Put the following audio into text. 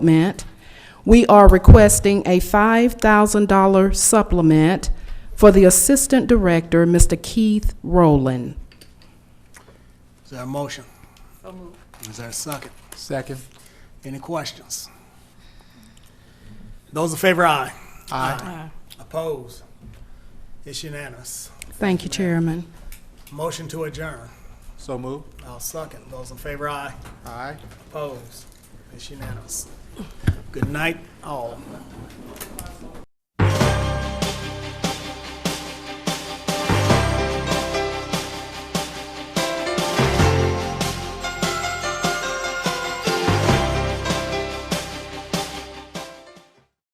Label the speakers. Speaker 1: supplement. We are requesting a $5,000 supplement for the Assistant Director, Mr. Keith Rowland.
Speaker 2: Is there a motion? Is there a second?
Speaker 3: Second.
Speaker 2: Any questions? Those in favor, aye. Aye. Opposed? It's unanimous.
Speaker 1: Thank you, Chairman.
Speaker 2: Motion to adjourn.
Speaker 3: So move.
Speaker 2: I'll second. Those in favor, aye.
Speaker 3: Aye.
Speaker 2: Opposed? It's unanimous. Good night, all.